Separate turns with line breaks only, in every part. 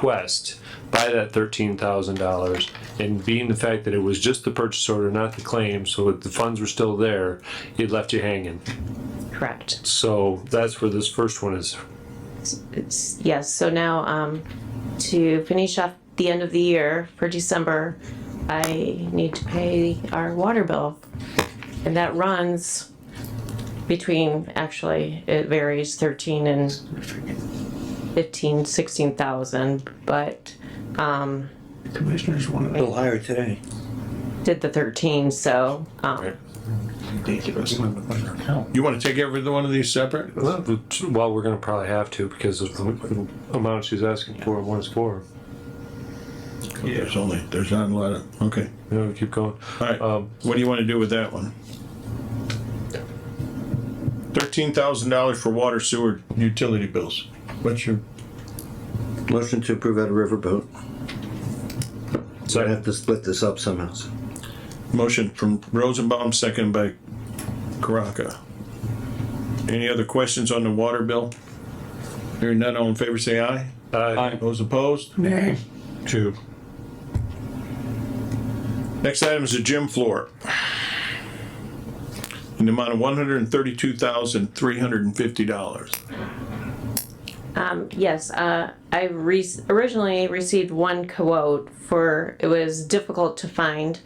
request by that thirteen thousand dollars, and being the fact that it was just the purchase order, not the claim, so that the funds were still there, it left you hanging.
Correct.
So that's where this first one is.
It's, yes, so now, um, to finish off the end of the year for December, I need to pay our water bill. And that runs between, actually, it varies thirteen and fifteen, sixteen thousand, but
Commissioners wanted
A little higher today.
did the thirteen, so, um,
ridiculous.
You want to take every one of these separate?
Well, we're gonna probably have to because of the amount she's asking for, and what it's for.
There's only, there's not a lot of, okay.
You know, keep going.
All right,
Um,
what do you want to do with that one? Thirteen thousand dollars for water sewer utility bills. What's your?
Motion to approve out of riverboat.
so
I have to split this up somehow.
Motion from Rosenbaum, second by Karaka. Any other questions on the water bill? Hearing none, all in favor, say aye.
uh,
Those opposed? Two. Next item is the gym floor. In the amount of one hundred and thirty-two thousand, three hundred and fifty dollars.
Um, yes, uh, I re- originally received one quote for, it was difficult to find,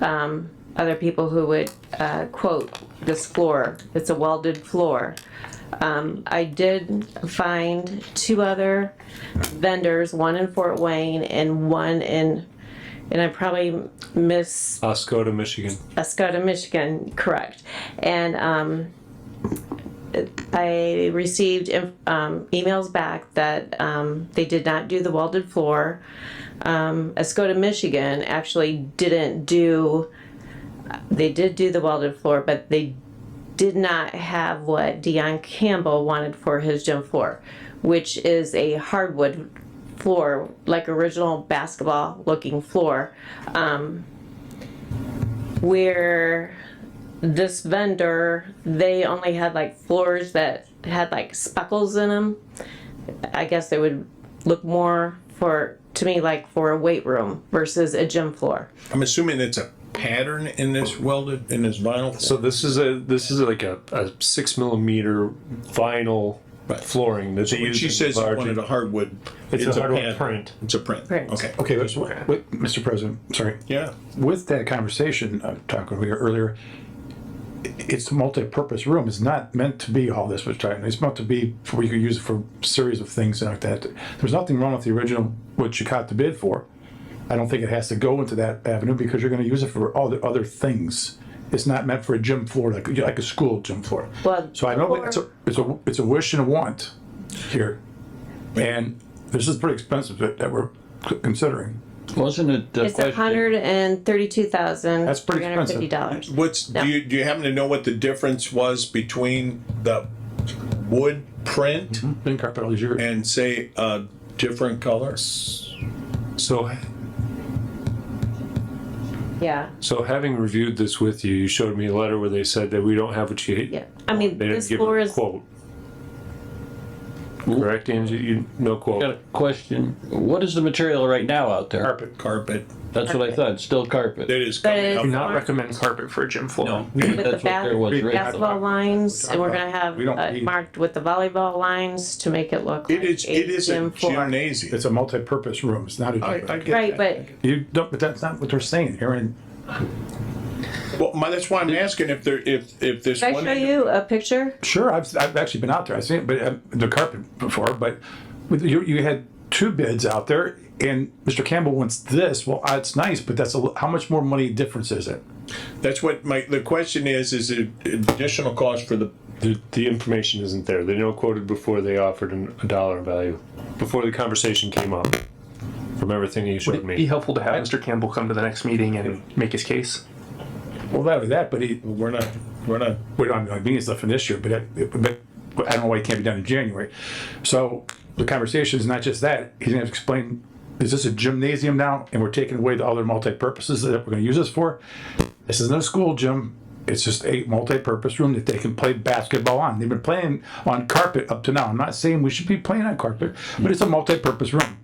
um, other people who would, uh, quote this floor. It's a welded floor. Um, I did find two other vendors, one in Fort Wayne and one in, and I probably miss
Oscoda, Michigan.
Escoda, Michigan, correct. And um, I received um, emails back that um, they did not do the welded floor. Um, Escoda, Michigan actually didn't do, they did do the welded floor, but they did not have what Dion Campbell wanted for his gym floor, which is a hardwood floor, like original basketball looking floor where this vendor they only had like floors that had like speckles in them i guess they would look more for to me like for a weight room versus a gym floor
I'm assuming it's a pattern in this welded, in this vinyl.
So this is a, this is like a, a six millimeter vinyl
Right.
flooring that they
When
use.
she
in
says
large-
wanted a hardwood.
It's a hardwood
pattern.
print.
It's a print.
Print.
Okay.
Okay, but, wait, Mr. President, sorry.
Yeah.
With that conversation, I'm talking here earlier, i- it's a multi-purpose room. It's not meant to be all this was talking. It's meant to be where you could use it for series of things and like that. There's nothing wrong with the original, what you caught the bid for. I don't think it has to go into that avenue because you're gonna use it for all the other things. It's not meant for a gym floor, like, like a school gym floor.
Well,
So I know it's a, it's a, it's a wish and a want here. And this is pretty expensive that, that we're c- considering.
Wasn't it the
it's a
question,
hundred and thirty-two thousand
That's
three
pretty
hundred fifty
expensive.
dollars
What's, do you, do you happen to know what the difference was between the wood print
Been carpet all these years.
and say a different color?
So
yeah
So having reviewed this with you, you showed me a letter where they said that we don't have what you.
yeah i mean
They didn't
this
give a
floor is
quote. Correct, Angie? You, no
got
quote.
a question, what is the material right now out there?
carpet.
Carpet.
That's what I thought, it's still carpet.
That is
But
coming
it's-
up.
Do not recommend carpet for a gym floor.
No,
with the
that's what there was
bath-
originally.
basketball lines and we're gonna have
We don't
uh,
need-
marked with the volleyball lines to make it look
It
like
is, it
a
is
gym
a
floor
gymnasium.
It's a multi-purpose room. It's not a.
I, I get
right
that.
but
You don't, but that's not what they're saying here. And
Well, my, that's why I'm asking if there, if, if this
Can I
one.
show you a picture?
sure, I've, I've actually been out there. I've seen it, but uh, the carpet before, but with, you, you had two bids out there and Mr. Campbell wants this. Well, uh, it's nice, but that's a, li- how much more money difference is it?
That's what my, the question is, is it additional cost for the,
The, the information isn't there. They no quoted before they offered an- a dollar value, before the conversation came up, from everything you
Would
showed
it be
me.
helpful to have Mr. Campbell come to the next meeting and make his case?
Well, not only that, but he,
we're not, we're not,
we don't have convenience stuff in this year, but, it- but but I don't know why it can't be done in January. So the conversation is not just that. He's gonna have to explain, is this a gymnasium now? And we're taking away the other multi-purposes that we're gonna use this for? This isn't a school gym. It's just a multi-purpose room that they can play basketball on. They've been playing on carpet up to now. I'm not saying we should be playing on carpet, but it's a multi-purpose room.